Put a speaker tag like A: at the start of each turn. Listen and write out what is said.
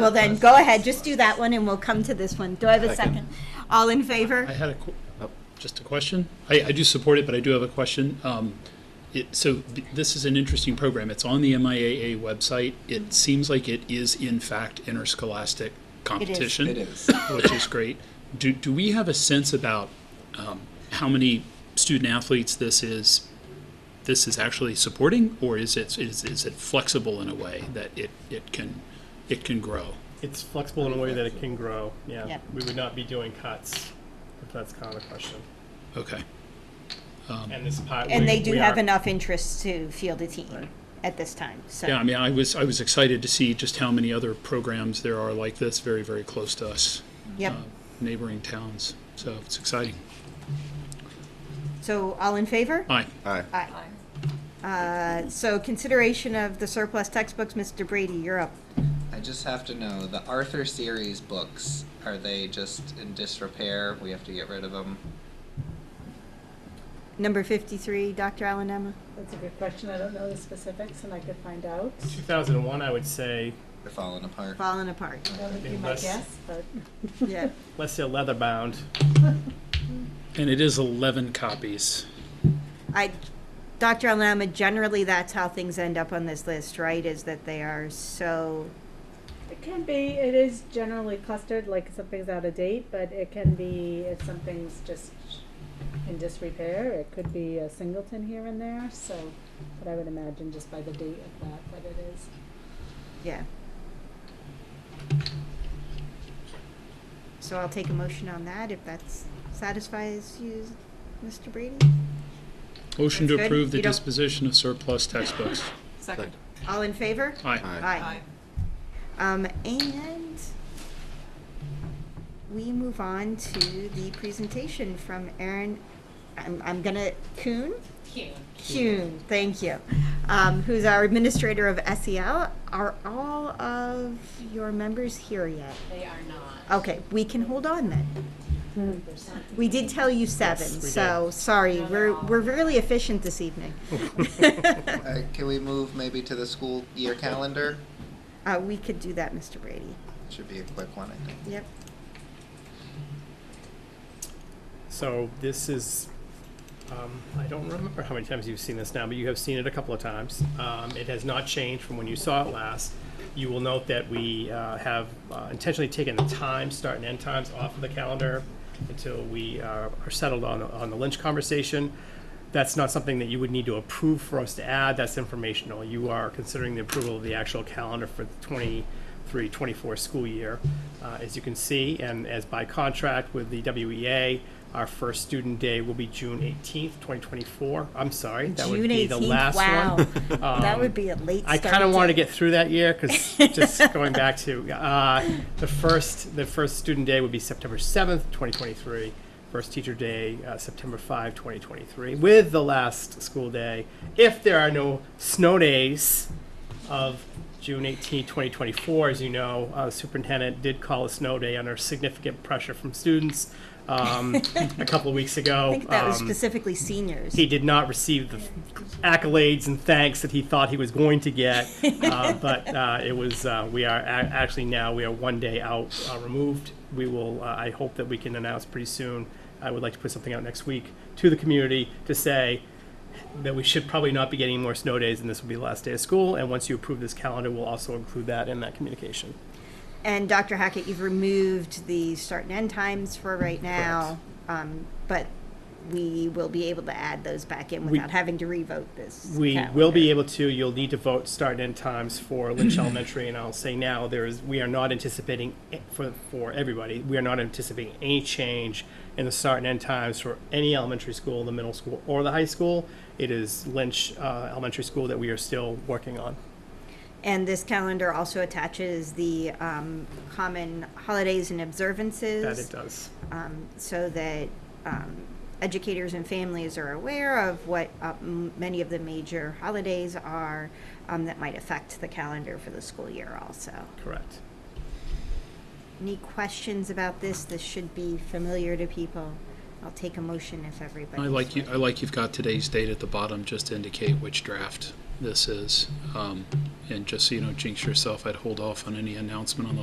A: Well, then, go ahead, just do that one, and we'll come to this one. Do I have a second? All in favor?
B: I had a, qu- oh, just a question. I, I do support it, but I do have a question. Um, it, so b- this is an interesting program. It's on the MIAA website.
C: Mm-hmm.
B: It seems like it is in fact interscholastic competition.
C: It is.
B: Which is great. Do, do we have a sense about, um, how many student athletes this is, this is actually supporting? Or is it, is, is it flexible in a way that it, it can, it can grow?
D: It's flexible in a way that it can grow, yeah.
A: Yep.
D: We would not be doing cuts, if that's kind of the question.
B: Okay.
D: And this pot, we
A: And they do
D: we
A: have
D: are-
A: enough interest to field a team at this time,
B: Yeah, I
A: so.
B: mean, I was, I was excited to see just how many other programs there are like this, very, very close to us,
A: Yep,
B: uh, neighboring towns. So it's exciting.
A: so all in favor?
B: Aye.
C: Aye.
A: Aye. Uh, So consideration of the surplus textbooks, Mr. Brady, you're up.
C: I just have to know the Arthur series books. Are they just in disrepair? We have to get rid of them.
A: Number 53, Dr. Allen Emma.
E: That's a good question. I don't know the specifics and I could find out.
D: 2001, I would say,
C: They're falling apart.
A: Falling apart,
E: That would be my
D: Unless-
E: guess, but
A: yeah.
D: let's say leather bound.
B: And it is 11 copies.
A: I, Dr. Alama, generally that's how things end up on this list, right? Is that they are so,
E: it can be, it is generally clustered, like something's out of date, but it can be if something's just in disrepair, it could be a singleton here and there, so, but I would imagine just by the date of that, that it is.
A: yeah. So I'll take a motion on that if that satisfies you, Mr. Brady.
B: Motion to
A: That's good.
B: approve the
A: You don't-
B: disposition of surplus textbooks.
F: Second.
A: All in favor?
B: Aye.
A: Aye. Um, and we move on to the presentation from Aaron, I'm, I'm gonna, Kuhn? Kuhn, thank you, um, who's our administrator of SEL. Are all of your members here yet?
G: They are not.
A: Okay, we can hold on then. We did tell you seven,
D: Yes, we
A: so, sorry,
G: No,
A: we're,
G: no.
A: we're really efficient this evening.
C: Uh, can we move maybe to the school year calendar?
A: Uh, we could do that, Mr. Brady.
C: Should be a quick one, I think.
A: Yep.
D: So this is, um, I don't remember how many times you've seen this now, but you have seen it a couple of times. Um, it has not changed from when you saw it last. You will note that we uh, have uh, intentionally taken the time, start and end times off of the calendar until we uh, are settled on, on the Lynch conversation. That's not something that you would need to approve for us to add, that's informational. You are considering the approval of the actual calendar for the 23, 24 school year. Uh, As you can see, and as by contract with the WEA, our first student day will be June 18th, 2024. I'm sorry, that would
A: June
D: be the
A: 18th,
D: last one. Um,
A: Wow, that would be a late.
D: I
A: start
D: kind of wanted to
A: date.
D: get through that year because just going back to uh, the first, the first student day would be September seventh, twenty twenty-three. First teacher day, uh, September 5, 2023, with the last school day, if there are no snow days, of June 18, 2024. As you know, uh, the superintendent did call a snow day under significant pressure from students um, a couple of weeks ago.
A: I think that was
D: Um,
A: specifically seniors.
D: he did not receive the accolades and thanks that he thought he was going to get. uh, but uh, it was uh, we are a- actually now we are one day out uh, removed. We will. Uh, I hope that we can announce pretty soon. I would like to put something out next week to the community to say that we should probably not be getting more snow days, and this will be the last day of school. And once you approve this calendar, we'll also include that in that communication.
A: And Dr. Hackett, you've removed the start and end times for right now. Um, but we will be able to add those back in without having to revote this.
D: We
A: calendar.
D: will be able to. You'll need to vote start and end times for Lynch Elementary, and I'll say now there is we are not anticipating a- for for everybody. We are not anticipating any change in the start and end times for any elementary school, the middle school, or the high school. It is Lynch uh, Elementary School that we are still working on.
A: And this calendar also attaches the um, common holidays and observances.
D: That it does.
A: um, so that um, educators and families are aware of what uh, m- many of the major holidays are um, that might affect the calendar for the school year also.
D: Correct.
A: Any questions about this? This should be familiar to people. I'll take a motion if everybody.
B: I like you, I like you've got today's date at the bottom, just to indicate which draft this is. Um, And just so you don't jinx yourself, I'd hold off on any announcement on the